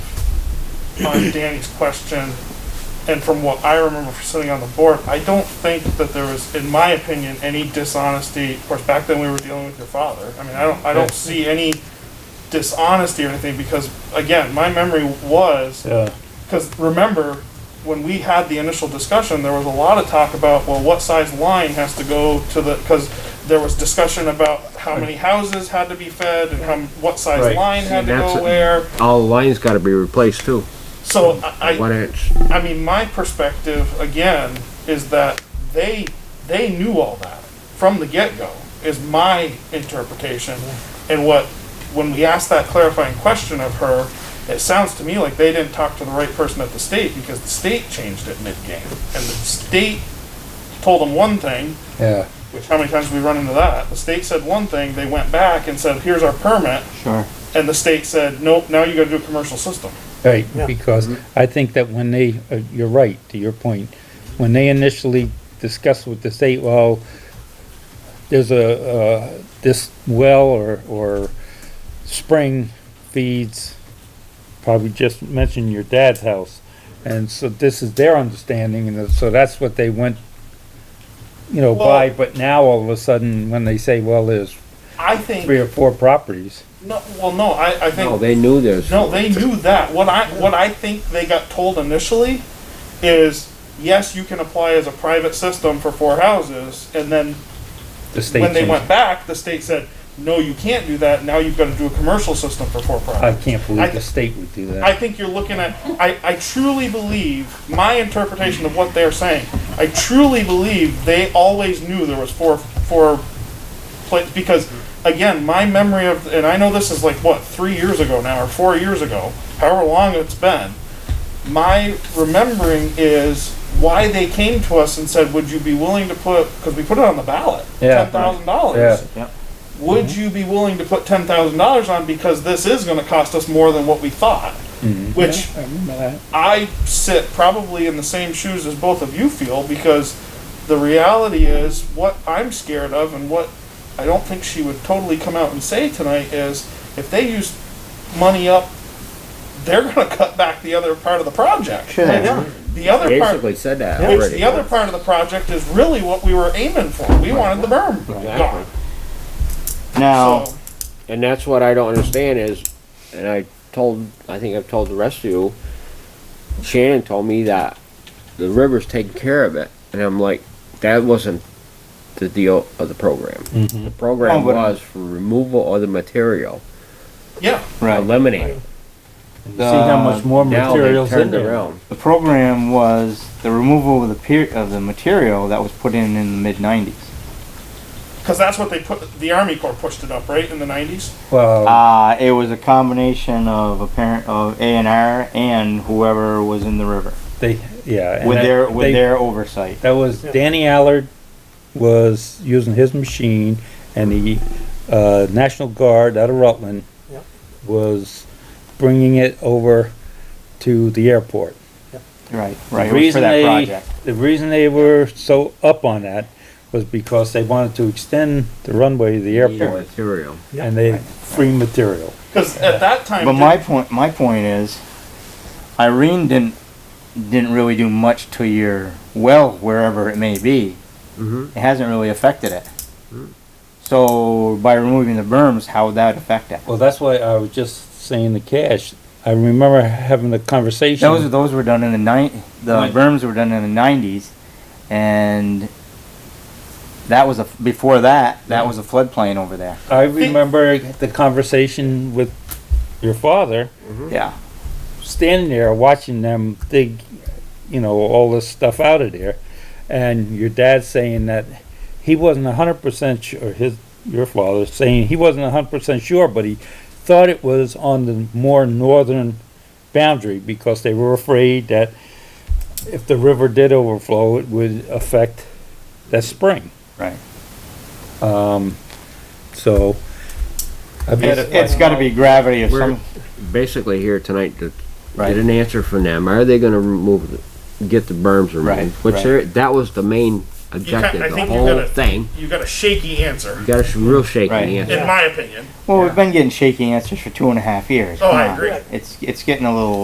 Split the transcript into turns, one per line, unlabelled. on Danny's question, and from what I remember from sitting on the board, I don't think that there was, in my opinion, any dishonesty. Of course, back then we were dealing with your father. I mean, I don't, I don't see any dishonesty or anything because, again, my memory was
Yeah,
because remember, when we had the initial discussion, there was a lot of talk about, well, what size line has to go to the, because there was discussion about how many houses had to be fed and how, what size
Right.
line had to
That's
go
it.
where.
All the lines gotta be replaced too,
So I, I-
one inch.
I mean, my perspective again is that they they knew all that from the get go. Is my interpretation, and what when we asked that clarifying question of her, it sounds to me like they didn't talk to the right person at the state because the state changed it mid game, and the state told them one thing.
yeah.
Which how many times have we run into that? The state said one thing, they went back and said, "Here's our permit,"
Sure.
and the state said, "Nope, now you got to do a commercial system."
Right, because I think that when they, uh, you're right, to your point, when they initially discussed with the state, well, there's a, uh, this well or, or spring feeds, probably just mentioned your dad's house. And so this is their understanding, and so that's what they went, you know, by,
Well-
but now all of a sudden, when they say, well, there's
I think
three or four properties.
no. Well, no, I, I think
No, they knew this.
No, they knew that. What I what I think they got told initially is yes, you can apply as a private system for four houses, and then
The state
when they
changed.
went back, the state said no, you can't do that. Now you've got to do a commercial system for four
I
properties.
can't
I-
believe the state would do that.
I think you're looking at. I, I truly believe my interpretation of what they're saying. I truly believe they always knew there was four four plates because again, my memory of and I know this is like what three years ago now or four years ago, however long it's been. My remembering is why they came to us and said, "Would you be willing to put?" Because we put it on the ballot,
Yeah.
ten thousand dollars
Yeah.
would you be willing to put ten thousand dollars on because this is going to cost us more than what we thought? Which
I remember that.
I sit probably in the same shoes as both of you feel because the reality is what I'm scared of and what I don't think she would totally come out and say tonight is if they use money up, they're going to cut back the other part of the project.
Sure.
Which
Yeah.
The other part.
Basically said that
Which the
already.
other part of the project is really what we were aiming for. We wanted the berm gone.
Now,
So-
And that's what I don't understand is, and I told, I think I've told the rest of you, Shannon told me that the river's taking care of it, and I'm like, that wasn't the deal of the program. The program
Oh, but-
was for removal of the material,
Yeah,
right,
eliminating.
See how much more
Now they
materials in
turned
there.
around.
the program was the removal of the per- of the material that was put in in the mid nineties.
because that's what they put. The Army Corps pushed it up, right, in the '90s.
Well,
Uh, it was a combination of a parent of A and R and whoever was in the river
they, yeah. and
with
that-
their with
they-
their oversight.
That was, Danny Allard was using his machine and the, uh, National Guard out of Rutland
Yep.
was bringing it over to the airport.
Right, right.
The
It was for
reason
that
they-
project.
The reason they were so up on that was because they wanted to extend the runway to the airport
Material.
Yeah.
and they free material.
Because at that time,
But my point, my point is, Irene didn't didn't really do much to your well, wherever it may be.
Mm-hmm.
It hasn't really affected it. So by removing the berms, how would that affect it?
Well, that's why I was just saying the cash. I remember having the conversation.
Those those were done in the nine. The
Right.
berms were done in the nineties, and that was a before that. That was a floodplain over there.
I remember the conversation with your father,
Mm-hmm.
Yeah.
standing there watching them dig, you know, all this stuff out of there, and your dad saying that he wasn't hundred percent sure. His your father saying he wasn't hundred percent sure, but he thought it was on the more northern boundary because they were afraid that if the river did overflow, it would affect that spring.
Right.
Um, so. I mean,
It's, it's got to be gravity of
We're
some.
basically here tonight to
Right.
get an answer from them. Are they gonna remove, the- get the berms removed?
Right,
Which
right.
they're, that was the main objective,
I
the
think you gotta-
whole thing.
you got a shaky answer,
You got a sh- real shaky
Right.
answer.
in my opinion.
Well, we've been getting shaky answers for two and a half years.
Oh, I
Come on.
agree.
It's it's getting a little